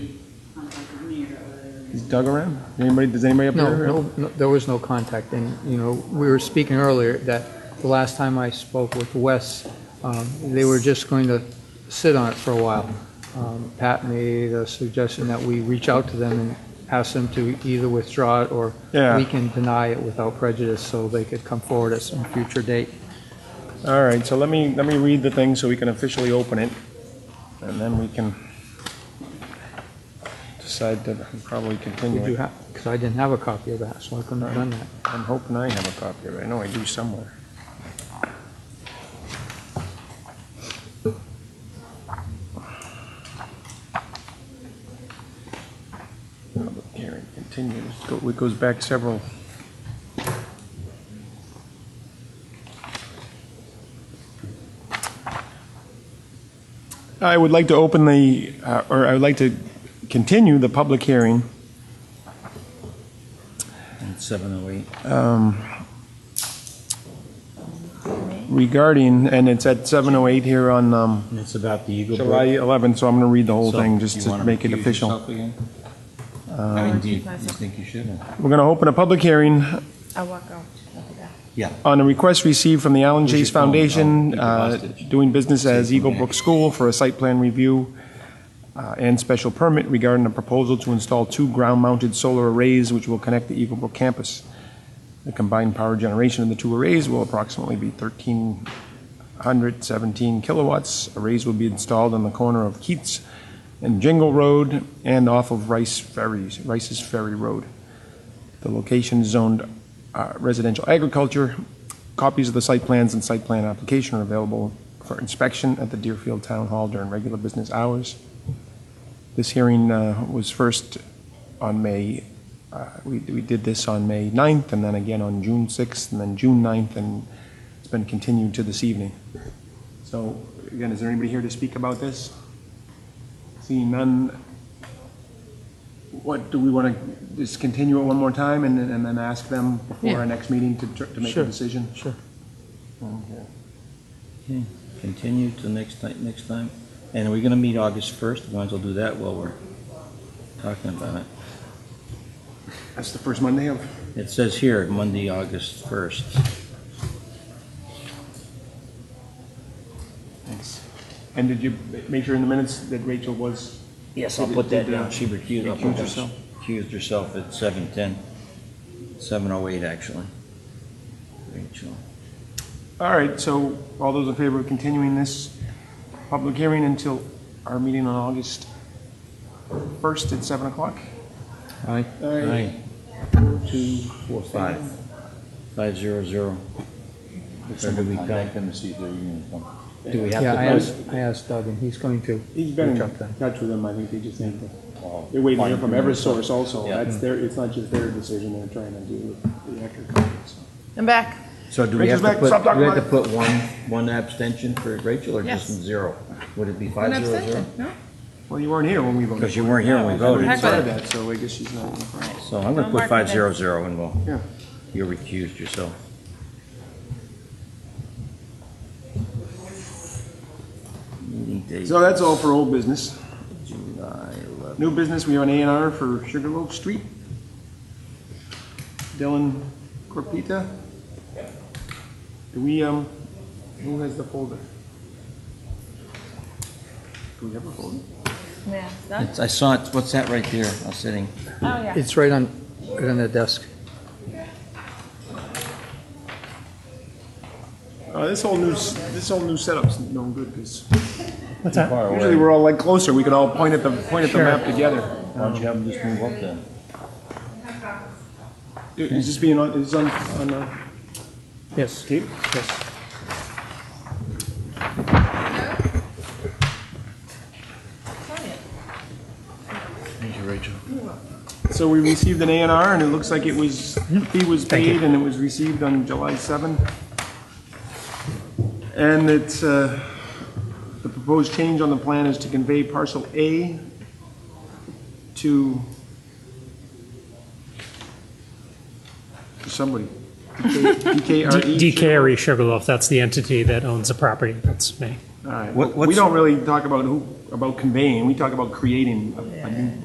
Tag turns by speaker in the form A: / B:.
A: He's dug around? Anybody, does anybody up
B: No,
A: there?
B: no, no, there was no contact, and, you know, we were speaking earlier that the last time I spoke with Wes, um, they were just going to sit on it for a while. Um, Pat made a suggestion that we reach out to them and ask them to either withdraw it, or we
A: Yeah,
B: can deny it without prejudice, so they could come forward at some future date.
A: all right, so let me, let me read the thing so we can officially open it, and then we can decide to probably continue
B: Did you
A: it.
B: have, because I didn't have a copy of that, so I couldn't have done that.
A: I'm hoping I have a copy of it. I know I do somewhere. Public hearing continues. Go- It goes back several. I would like to open the, uh, or I would like to continue the public hearing
C: Seven oh eight.
A: um, regarding, and it's at 7:08 here on um,
C: And it's about the Eagle
A: July
C: Brook.
A: 11th, so I'm going to read the whole thing
C: So,
A: just
C: you
A: to
C: wanna
A: make it
C: recuse
A: official.
C: yourself again? I mean, do you, you think you should?
A: We're going to open a public hearing
D: I walk out. Okay.
A: on a request received from the Allen
C: Where's
A: Chase
C: your phone?
A: Foundation,
C: Oh, you
A: uh,
C: lost it.
A: doing business as
C: Save
A: Eagle
C: it.
A: Brook School for a site plan review uh, and special permit regarding a proposal to install two ground-mounted solar arrays which will connect the Eagle Brook campus. The combined power generation of the two arrays will approximately be 1,317 kilowatts. Arrays will be installed on the corner of Keats and Jingle Road and off of Rice Ferries, Rice's Ferry Road. The location is zoned uh, residential agriculture. Copies of the site plans and site plan application are available for inspection at the Deerfield Town Hall during regular business hours. This hearing uh, was first on May, uh, we we did this on May 9th, and then again on June 6th, and then June 9th, and it's been continued to this evening. So again, is there anybody here to speak about this? Seeing none, what, do we want to just continue it one more time and then and then ask them before our next meeting to tr- to make a
B: Sure.
A: decision?
B: Sure.
A: Okay.
C: Continue till next time, next time. And are we gonna meet August first? Might as well do that while we're talking about it.
A: That's the first Monday of,
C: It says here, Monday, August first.
A: and did you ma- make sure in the minutes that Rachel was?
C: Yes, I'll
A: Did-
C: put that
A: did, uh,
C: down. She recused, I'll
A: recuse
C: put that-
A: herself?
C: recused herself at seven ten. Seven oh eight, actually. Rachel.
A: All right, so all those in favor of continuing this public hearing until our meeting on August 1st at 7 o'clock?
B: Aye.
C: Aye. Two, four, five. Five zero zero. Or do we
E: Contact them to see if they're even gonna come.
C: come- Do we have
B: Yeah, I
C: to?
B: asked, I asked Doug, and he's going to.
A: He's been in
B: Reach out to them.
A: touch with them, I think they just need to,
E: Well,
A: they're waiting to hear
E: fine.
A: from Eversource also.
E: Yeah.
A: That's their, it's not just their decision, they're trying to do with the Ecker company, so.
D: I'm back.
C: So do we
A: Rachel's
C: have to
A: back.
C: put,
A: Stop
C: do
A: talking
C: we have to
A: about
C: put one, one abstention for Rachel or just
D: Yes.
C: zero? Would it be
D: An
C: five zero zero?
D: abstention, no?
A: Well, you weren't here when we
C: Because
A: voted.
C: you weren't here when we
A: We
C: voted,
D: Heck.
A: decided that, so I guess she's not.
C: so I'm gonna put
D: Don't mark it then.
C: five zero zero and we'll,
A: Yeah.
C: you recused yourself. Meeting date,
A: So that's all for old business.
C: July eleventh.
A: New business, we have an A and R for Sugarloaf Street. Dylan Corpita. Do we, um, who has the folder? Do we have a folder?
D: Yeah. Done?
C: It's- I saw it, what's that right there, I was sitting,
D: Oh, yeah.
B: It's right on, right on the desk.
A: Uh, this whole new, s- this whole new setup's no good, because
C: too far away.
A: usually we're all like closer, we can all point at the, point at the map together.
C: Why don't you have them just move up then?
A: Is this being on, is this on, on, uh,
B: Yes.
A: tape?
C: Thank you, Rachel.
A: So we received an A and R, and it looks like it was, fee was paid, and it was received on July 7th. And it's, uh, the proposed change on the plan is to convey parcel A to to somebody. DKRE?
F: D- DKRE Sugarloaf, that's the entity that owns the property, that's me.
A: All right.
C: E. What-
A: We
C: what's-
A: don't really talk about who, about conveying, we talk about creating a- a new